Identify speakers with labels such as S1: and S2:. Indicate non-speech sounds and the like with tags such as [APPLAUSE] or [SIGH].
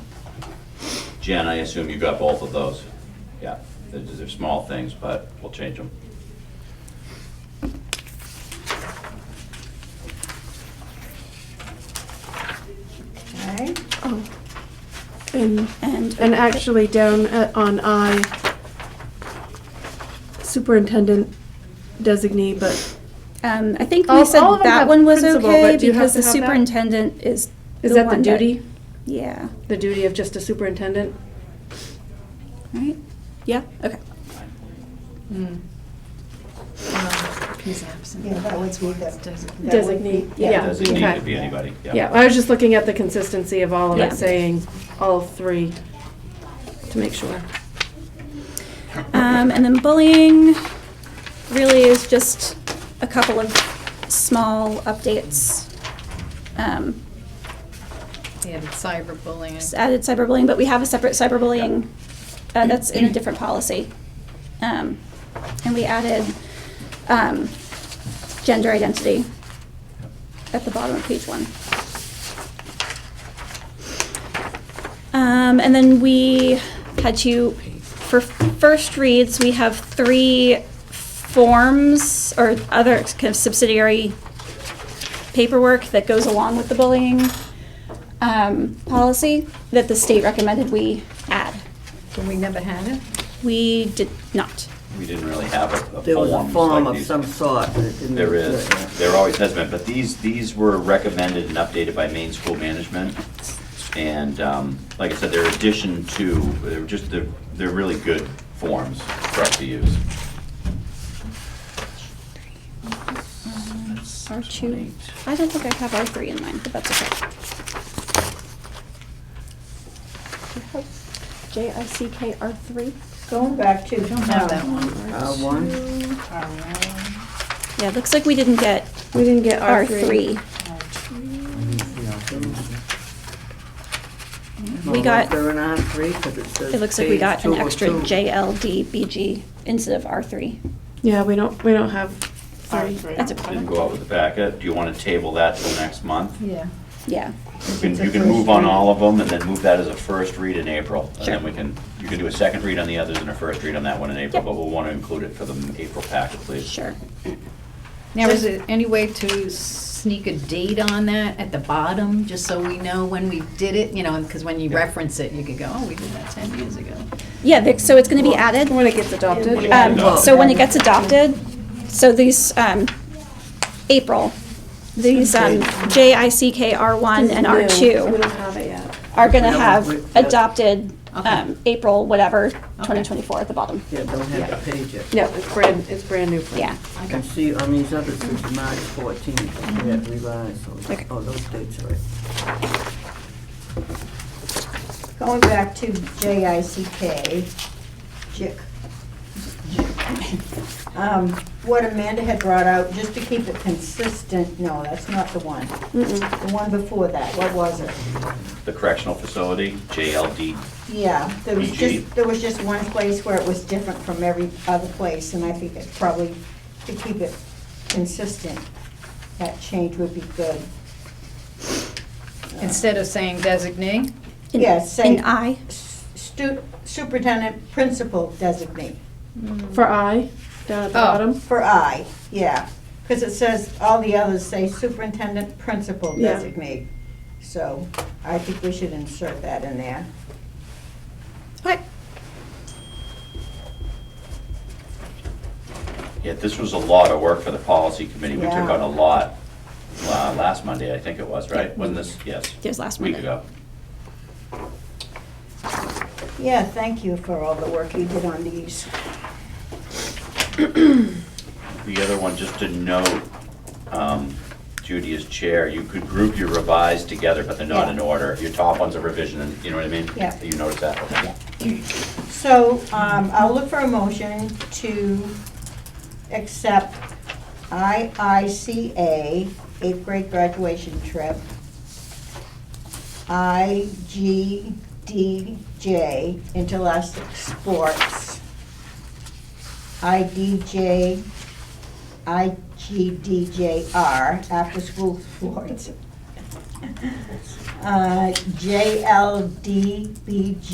S1: Jen, I assume you got both of those? Yeah, they're, they're small things, but we'll change them.
S2: Okay.
S3: And,
S4: And,
S3: and uh, actually down at- on I, superintendent designee, but
S4: um, I think
S3: All-
S4: we said
S3: all of them have
S4: that one was
S3: principal,
S4: okay
S3: but do you have
S4: because
S3: to
S4: the
S3: have that?
S4: superintendent is
S3: is that the
S4: one
S3: duty?
S4: Yeah,
S3: The duty of just a superintendent?
S4: right? Yeah, okay.
S5: He's absent.
S2: Yeah, that would be the-
S5: Designate.
S2: That would
S3: Designee,
S2: be-
S3: yeah.
S1: Does it need
S3: okay.
S1: to be anybody?
S3: Yeah, I was just looking at the consistency of all of
S4: Yeah.
S3: it, saying all three, to make sure.
S4: Um, and then bullying really is just a couple of small updates. Um,
S5: Yeah, the cyberbullying.
S4: just added cyberbullying, but we have a separate cyberbullying uh, that's in a different policy. Um, and we added um, gender identity at the bottom of page one. Um, and then we had to, for first reads, we have three forms or other kind of subsidiary paperwork that goes along with the bullying um, policy that the state recommended we add.
S5: But we never had it?
S4: We did not.
S1: We didn't really have a- a
S6: There was a
S1: form,
S6: form
S1: like
S6: of
S1: these-
S6: some sort. but it didn't-
S1: There is, there always has been, but these, these were recommended and updated by Maine School Management. And um, like I said, they're addition to, they're just, they're, they're really good forms for us to use.
S4: R two. I don't think I have R three in mind, but that's okay. J I C K R three?
S2: Going back to.
S5: Don't have that one.
S6: Uh, one,
S4: Yeah, it looks like we didn't get
S3: We didn't get
S4: R three.
S6: Well,
S4: We
S6: was
S4: got-
S6: there an R three, 'Cause it says.
S4: It looks like we
S6: page
S4: got an extra
S6: 202.
S4: J L D B G instead of R three.
S3: Yeah, we don't, we don't have three.
S4: That's
S1: Didn't
S4: okay.
S1: go out with the packet. Do you want to table that till next month?
S5: Yeah.
S4: Yeah.
S1: You can,
S5: It's a
S1: you can
S5: first
S1: move on
S5: read.
S1: all of them and then move that as a first read in April. And
S4: Sure.
S1: then we can, you can do a second read on the others and a first read on that one in April,
S4: Yep.
S1: but we'll want to include it for the April packet, please.
S4: Sure.
S5: Now, is there any way to sneak a date on that at the bottom, just so we know when we did it? You know, because when you
S1: Yeah.
S5: reference it, you could go, oh, we did that 10 years ago.
S4: Yeah, Vic, so it's gonna be added.
S3: When it gets adopted.
S1: Yeah.
S4: Um, so when it gets adopted, so these, um, April, these, um, J I C K R one and R
S3: We
S4: two
S3: don't have it yet.
S4: are gonna
S6: Yeah,
S4: have
S6: we- yeah.
S4: adopted, um, April, whatever, twenty twenty-four at the bottom.
S6: Yeah, don't have to page it.
S3: No, it's brand, it's brand new. for me.
S4: Yeah,
S6: I can see on these others, it's March fourteenth, we have revised, so,
S4: Okay.
S6: oh, those dates are right.
S2: Going back to J I C K, JIC. Um, What Amanda had brought out, just to keep it consistent, no, that's not the one. The one before that, what was it?
S1: The correctional facility, JLD,
S2: Yeah, there was
S1: PG.
S2: just, there was just one place where it was different from every other place, and I think it's probably, to keep it consistent, that change would be good.
S5: Instead of saying designate,
S4: In-
S2: Yeah, say-
S4: in I.
S2: S- stu- Superintendent, principal designate.
S3: For I, down at the
S5: Oh.
S3: bottom.
S2: For I, yeah, because it says, all the others say superintendent, principal
S3: Yeah.
S2: designate. So I think we should insert that in there.
S4: Okay.
S1: Yeah, this was a lot of work for the policy committee. We took
S2: Yeah.
S1: on a lot uh, last Monday, I think it was, right? Wasn't this, yes,
S4: There's last
S1: week
S4: Monday.
S1: ago.
S2: Yeah, thank you for all the work you did on these.
S1: The other one, just to note, um, Judy is chair, you could group your revised together, but they're not in
S2: Yeah.
S1: order. Your top one's a revision, and you know what I mean?
S2: Yeah.
S1: You notice that? Okay.
S2: So um, I'll look for a motion to accept IICA, eighth grade graduation trip, IGDJ, interscholastic sports, IDJ, IGDJR, after-school [LAUGHS] sports, uh, JLDBG,